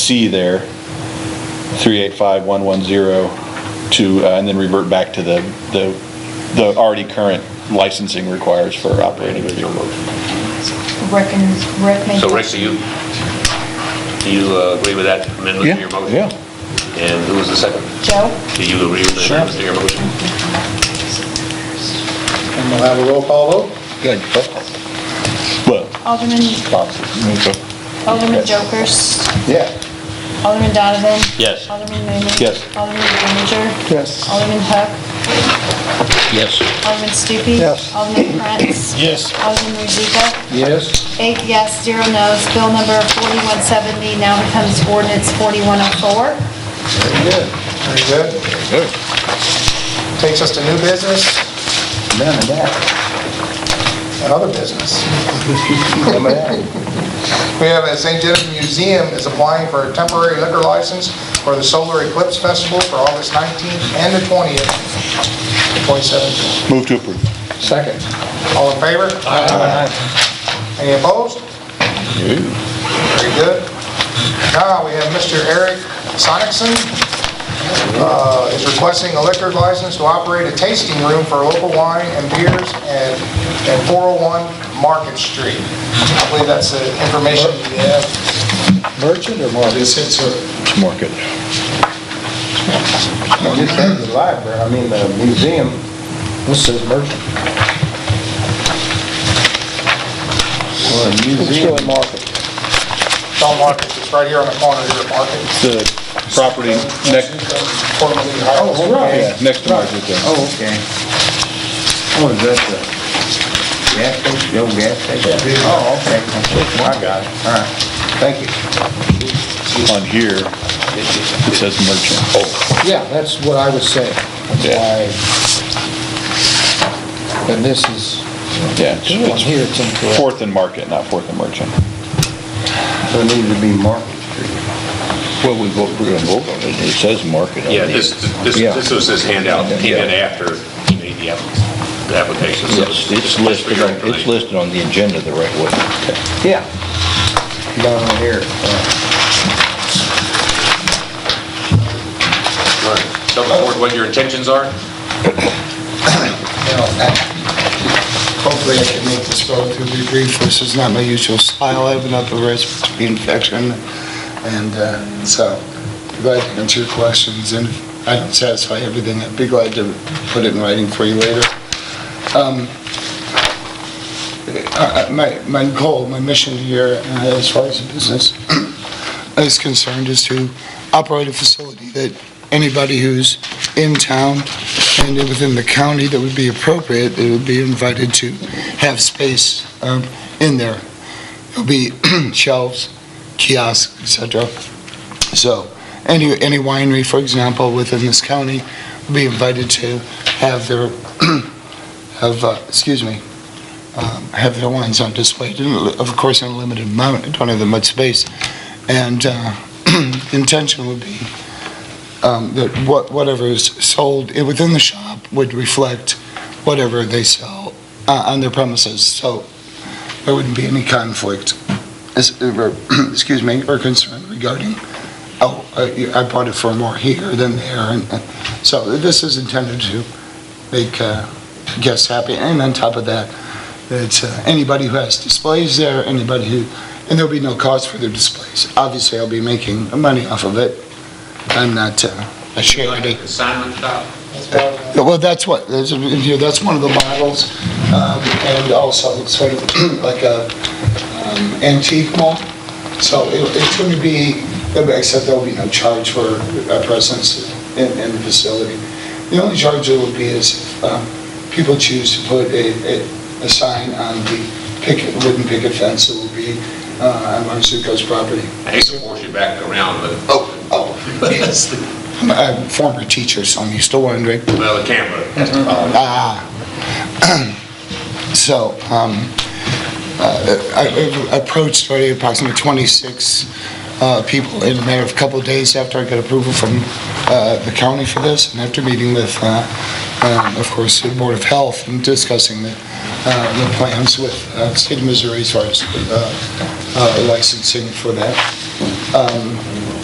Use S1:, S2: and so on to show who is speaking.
S1: C there, 385110, to, uh, and then revert back to the, the, the already current licensing requires for operating.
S2: Original motion.
S3: Reckons, recommend.
S2: So Rex, do you, do you uh, agree with that amendment to your motion?
S1: Yeah,
S2: And who was the second?
S3: Joe?
S2: Do you agree with the
S1: Sure.
S2: amendment to your motion?
S4: And we'll have a roll call vote.
S1: Good. Well,
S3: Alderman, Alderman Jokers?
S4: Yeah.
S3: Alderman Donovan?
S2: Yes.
S3: Alderman Mooney?
S1: Yes.
S3: Alderman Ranger?
S4: Yes.
S3: Alderman Hook?
S2: Yes.
S3: Alderman Stupi?
S4: Yes.
S3: Alderman Prince?
S1: Yes.
S3: Alderman Rozika?
S4: Yes.
S3: Eight yes, zero no's. Bill number 4170 now becomes ordinance 4104.
S4: Very good. Very good.
S1: Good.
S4: Takes us to new business. None of that. And other business. None of that. We have a St. Genevieve Museum is applying for a temporary liquor license for the Solar Eclipse Festival for August 19th and the 20th, 2017.
S1: Move to approve.
S4: Second. All in favor? Aye. Any opposed? Very good. Now, we have Mr. Eric Sonicson, uh, is requesting a liquor license to operate a tasting room for local wine and beers at at 401 Market Street. I believe that's the information you have.
S5: Merchant or more? This is a...
S1: It's market.
S5: This is the library, I mean, the museum. This says merchant. Well, a museum. market.
S4: Don Market, it's right here on the corner here, Market.
S1: The property next,
S4: Formerly Highlands.
S5: Oh, right.
S1: next to market there.
S5: Oh, okay. Oh, is that the gas station, the old gas station? Oh, okay. I got it, all right. Thank you.
S1: On here, it says merchant.
S6: Yeah, that's what I was saying.
S1: Yeah.
S6: Why- And this is,
S1: Yeah. it's-
S6: on
S1: it's
S6: here it's incorrect.
S1: Fourth and market, not fourth and merchant.
S5: So it needs to be Market Street.
S1: Well, we vote, we're gonna vote on it. It says market.
S2: Yeah, this, this,
S5: Yeah.
S2: this was his handout, that came in after he made the app- the application. so
S7: Yes, it's
S2: just for
S7: listed,
S2: your
S7: on- it's
S2: information.
S7: listed on the agenda the right way.
S5: Yeah. Down here. uh,
S2: All right. Tell the board what your intentions are.
S6: you know, that- hopefully I can make this relatively brief. This is not my usual style. I have another respiratory infection, and uh, so glad to answer your questions, and if I don't satisfy everything, I'd be glad to put it in writing for you later. Um, I- I- My my goal, my mission here, uh, as far as the business is concerned, is to operate a facility that anybody who's in town and within the county that would be appropriate, they would be invited to have space um, in there. There'll be shelves, kiosks, et cetera. So, any, any winery, for example, within this county will be invited to have their, have, uh, excuse me, um, have their wines on display, in a li- of course, in a limited amount, I don't have that much space. And uh, intention would be um, that what- whatever is sold i- within the shop would reflect whatever they sell uh, on their premises, so there wouldn't be any conflict, as- or, excuse me, or concern regarding, oh, uh, you- I bought it for more here than there, and uh, so this is intended to make uh, guests happy, and on top of that, that uh, anybody who has displays there, anybody who, and there'll be no cost for their displays. Obviously, I'll be making money off of it. I'm not uh, a charity.
S2: Consignment shop?
S6: Well, that's what, that's, in here, that's one of the models, um, and also it's sort of like a um, antique mall. So it- it's going to be, except there'll be no charge for a presence in, in the facility. The only charge there would be is if um, people choose to put a, a- a sign on the picket, wooden picket fence that will be uh, on Marzuko's property.
S2: I hate to force you back around, but
S6: Oh, oh, yes. I'm a former teacher, so I'm used to wondering.
S2: Well, the camera.
S6: Ah. So, um, uh, I I approached already approximately 26 uh, people in a matter of a couple of days after I got approval from uh, the county for this, and after meeting with, uh, um, of course, the Board of Health and discussing the uh, the plans with uh, State of Missouri as far as uh, uh, licensing for that. Um,